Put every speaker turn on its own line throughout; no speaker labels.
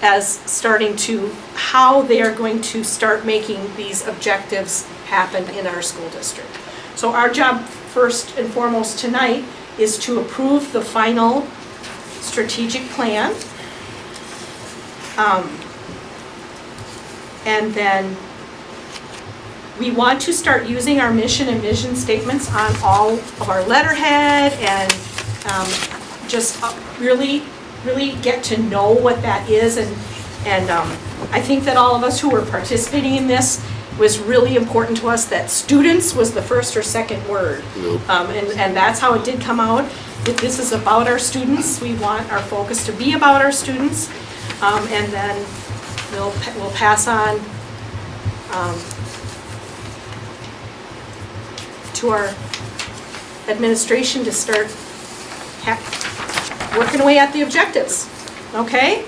as starting to, how they are going to start making these objectives happen in our school district. So our job first and foremost tonight is to approve the final strategic plan. Um, And then we want to start using our mission and vision statements on all of our letterhead and um, just uh, really, really get to know what that is. And, and um, I think that all of us who were participating in this was really important to us that students was the first or second word. Um, And, and that's how it did come out. That This is about our students. We want our focus to be about our students. Um, And then we'll, pa- we'll pass on um, to our administration to start ha- working away at the objectives, okay?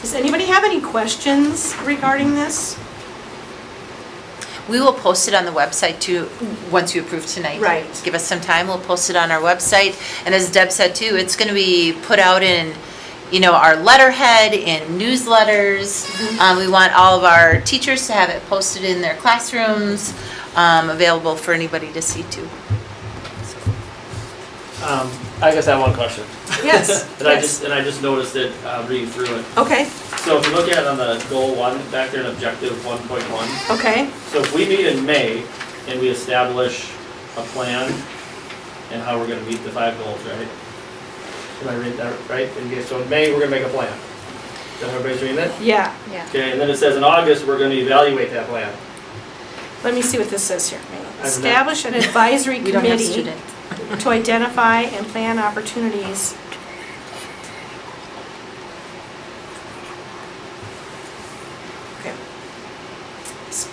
Does anybody have any questions regarding this?
We will post it on the website too, once you approve tonight.
Right.
Give us some time, we'll post it on our website. And as Deb said too, it's going to be put out in, you know, our letterhead, in newsletters.
Mm-hmm.
Um, We want all of our teachers to have it posted in their classrooms, um, available for anybody to see too.
Um, I guess I have one question.
Yes,
And I
yes.
just, and I just noticed it, uh, reading through it.
Okay,
So if you look at it on the goal one, back there in objective one point one,
okay,
so if we meet in May and we establish a plan and how we're gonna meet the five goals, right? Did I read that right? And yeah, so in May, we're gonna make a plan. Is that what everybody's reading that?
yeah.
Okay, and then it says in August, we're gonna evaluate that plan.
Let me see what this says here.
not-
Establish an advisory
We don't have
committee
students.
to identify and plan opportunities. Okay. S-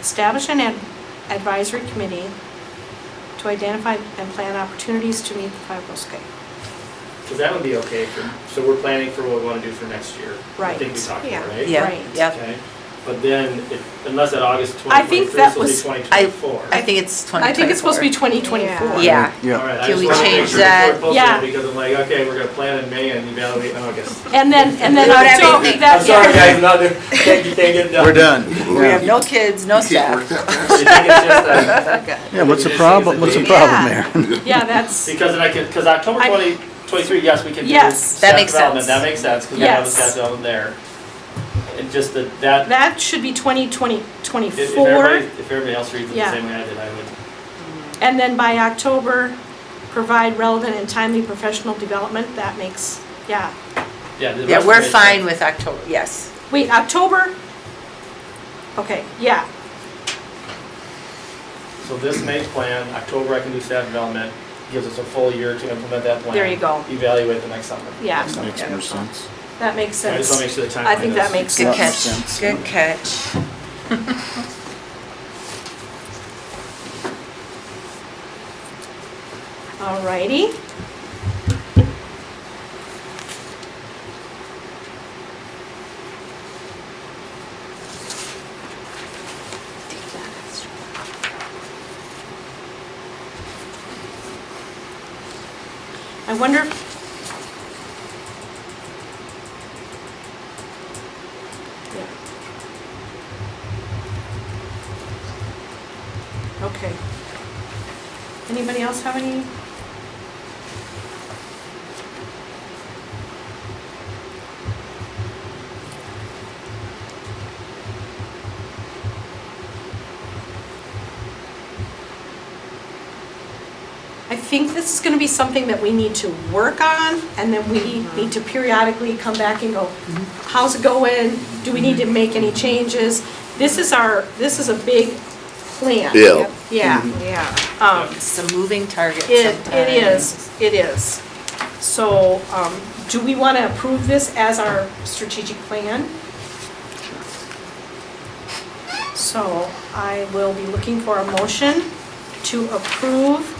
Establish an ad- advisory committee to identify and plan opportunities to meet the five oh goals. Okay,
Cause that would be okay for, so we're planning for what we wanna do for next year. I think
Right,
we talked
yeah.
about, right?
Right.
Yeah, yeah.
Okay, but then, it- unless at August
I think
2023,
that
this will be
was-
2024.
I think it's 2024.
I think it's supposed to be 2024.
Yeah.
All
Yeah,
right, I
Can
just
we
wanted to make
change
sure before
that?
I posted it,
Yeah.
Because I'm like, okay, we're gonna plan in May and evaluate in August.
And then, and then,
Without
so
everything.
that,
I'm sorry, guys, I'm not, there. can't, you can't get it done.
we're done.
We have no kids, no staff.
You think it's just that-
Yeah, what's the problem, what's the problem there?
yeah, that's,
Because then I could, because October
I-
2023, yes, we can do
Yes.
That
staff
makes
development,
sense.
that makes sense, because we have the
Yes.
staff development there. And just that, that,
that should be 2020,
if if
24.
everybody, if everybody else reads it the
Yeah.
same way I did, I would.
And then by October, provide relevant and timely professional development, that makes, yeah.
Yeah, the
Yeah,
rest
we're
of it-
fine with October, yes.
Wait, October? Okay, yeah,
So this May plan, October I can do staff development, gives us a full year to implement that plan.
There you go.
Evaluate the next summer.
yeah,
Makes more sense.
that makes
I just want to
sense.
make sure the
I
timeline
think that
is-
makes
Good
sense.
makes
catch,
sense.
good catch.
Alrighty. I wonder if... Yeah. Okay. Anybody else have any? I think this is gonna be something that we need to work on, and then we need to periodically come back and go, how's it going? Do we need to make any changes? This is our, this is a big plan.
Yeah.
Yeah,
Yeah.
um,
It's a moving target
it,
sometimes.
it is, it is. So, um, do we want to approve this as our strategic plan? So I will be looking for a motion to approve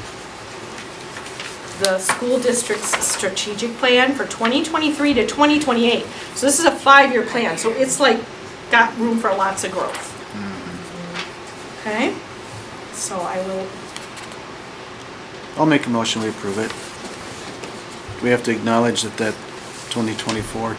the school district's strategic plan for 2023 to 2028. So this is a five-year plan, so it's like, got room for lots of growth. Okay? So I will
I'll make a motion, we approve it. We have to acknowledge that that 2024